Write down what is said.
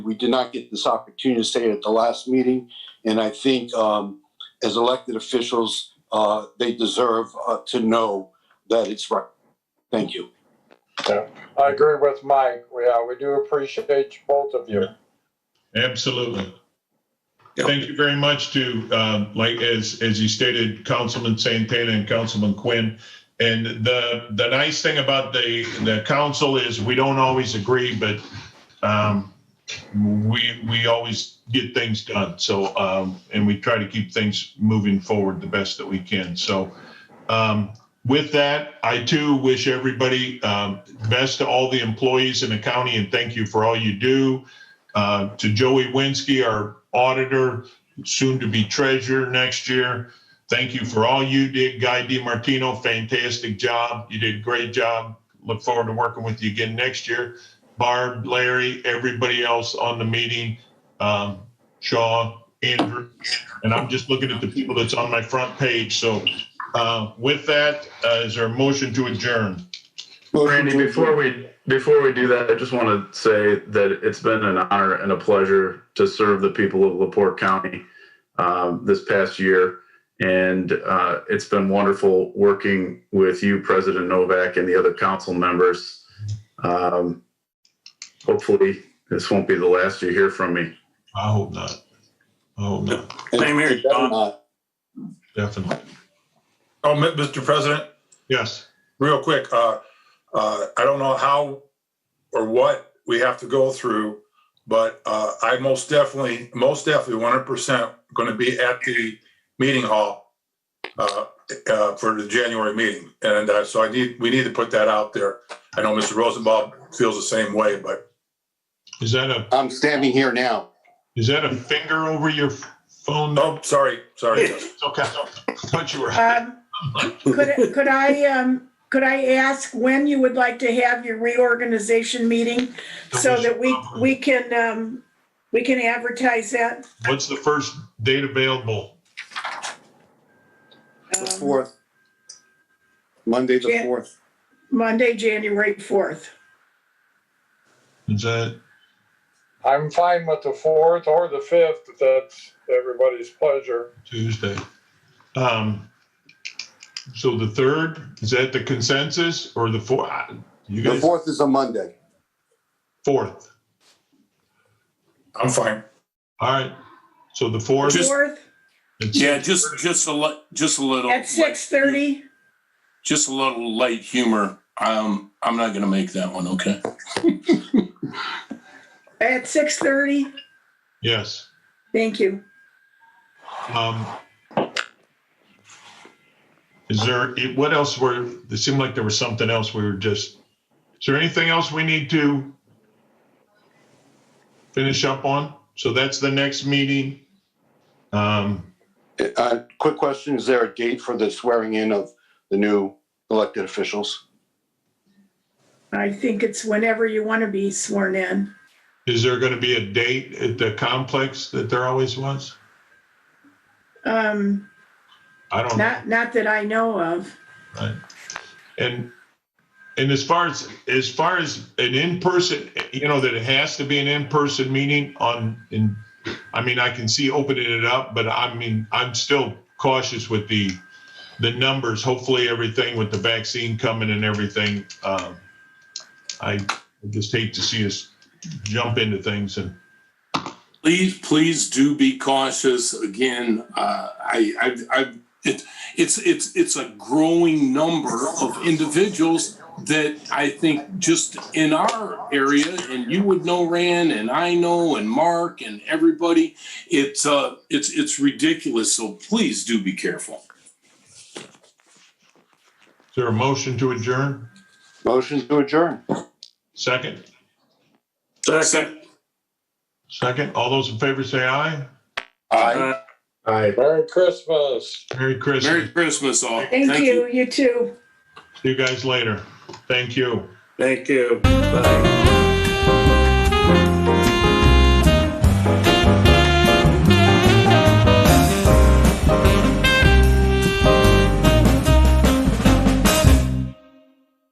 we did not get this opportunity to say it at the last meeting. And I think um, as elected officials, uh, they deserve uh, to know that it's right. Thank you. I agree with Mike. We, uh, we do appreciate both of you. Absolutely. Yeah. Thank you very much to, um, like, as, as you stated, Councilman Santana and Councilman Quinn. And the, the nice thing about the, the council is we don't always agree, but um, we, we always get things done. So, um, and we try to keep things moving forward the best that we can. So um, with that, I too wish everybody um, best to all the employees in the county and thank you for all you do uh, to Joey Winsky, our auditor, soon to be treasurer next year. Thank you for all you did, Guy DiMartino. Fantastic job. You did a great job. Look forward to working with you again next year. Barb, Larry, everybody else on the meeting, um, Shaw, Andrew, and I'm just looking at the people that's on my front page. So uh, with that, uh, is there a motion to adjourn? Randy, before we before we do that, I just want to say that it's been an honor and a pleasure to serve the people of Laporte County um, this past year, and uh, it's been wonderful working with you, President Novak, and the other council members. Um, hopefully, this won't be the last you hear from me. I hope not. I hope not. Same here, It better Don. not. Definitely. Oh, Mi- Mr. President, Yes. real quick, uh, uh, I don't know how or what we have to go through, but, uh, I most definitely, most definitely one hundred percent gonna be at the meeting hall, uh, uh, for the January meeting. And, uh, so I need, we need to put that out there. I know Mr. Rosenbaum feels the same way, but Is that a I'm standing here now. Is that a finger over your phone? no, oh, sorry, sorry. It's okay. I thought you were. Um, Could, could I, um, could I ask when you would like to have your reorganization meeting so that we, we can, um, we can advertise that? What's the first date available? The um, fourth. Monday, the Jan- fourth. Monday, January 4th. Is that, I'm fine with the fourth or the fifth, if that's everybody's pleasure. Tuesday. Um, so the third, is that the consensus or the four? You The guys, fourth is a Monday. fourth. I'm fine. All right. So the fourth. Just- 4th it's- Yeah, just, just a li- just a little. at 6:30? Just a little light humor. Um, I'm not gonna make that one, okay? At 6:30? Yes. Thank you. Um, is there, it- what else were, it seemed like there was something else we were just, is there anything else we need to finish up on? So that's the next meeting. Um, Uh, quick question, is there a date for the swearing in of the new elected officials? I think it's whenever you want to be sworn in. is there going to be a date at the complex that there always was? Um, I don't know. not, not that I know of. And, and as far as, as far as an in-person, you know, that it has to be an in-person meeting on, in, I mean, I can see opening it up, but I mean, I'm still cautious with the, the numbers. Hopefully everything with the vaccine coming and everything, um, I I just hate to see us jump into things and, Please, please do be cautious. Again, uh, I, I've, I've, it, it's, it's, it's a growing number of individuals that I think just in our area, and you would know Rand, and I know, and Mark, and everybody, it's, uh, it's, it's ridiculous. So please do be careful. is there a motion to adjourn? Motion to adjourn. Second, Second. second, all those in favor say aye. Aye. Aye. Merry Christmas. Merry Merry Christmas. Christmas all. Thank you, you too. See you guys later. Thank you. Thank you. Bye.